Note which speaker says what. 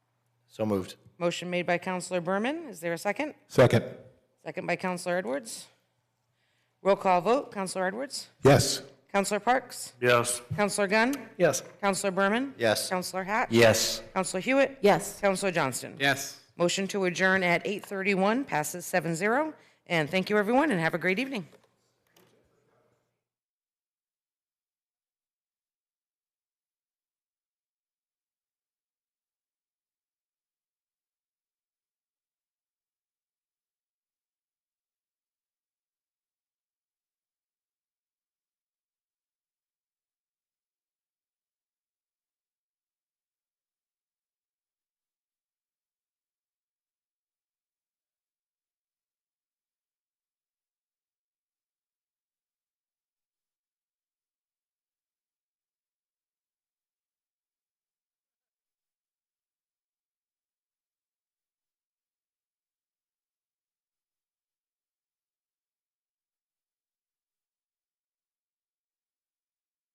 Speaker 1: So moved.
Speaker 2: Motion made by Counselor Berman. Is there a second?
Speaker 3: Second.
Speaker 2: Second by Counselor Edwards. Roll call vote. Counselor Edwards?
Speaker 3: Yes.
Speaker 2: Counselor Parks?
Speaker 4: Yes.
Speaker 2: Counselor Gunn?
Speaker 4: Yes.
Speaker 2: Counselor Berman?
Speaker 1: Yes.
Speaker 2: Counselor Hatch?
Speaker 1: Yes.
Speaker 2: Counselor Hewitt?
Speaker 5: Yes.
Speaker 2: Counselor Johnston?
Speaker 6: Yes.
Speaker 2: Motion to adjourn at 8:31 passes 7-0. And thank you, everyone, and have a great evening.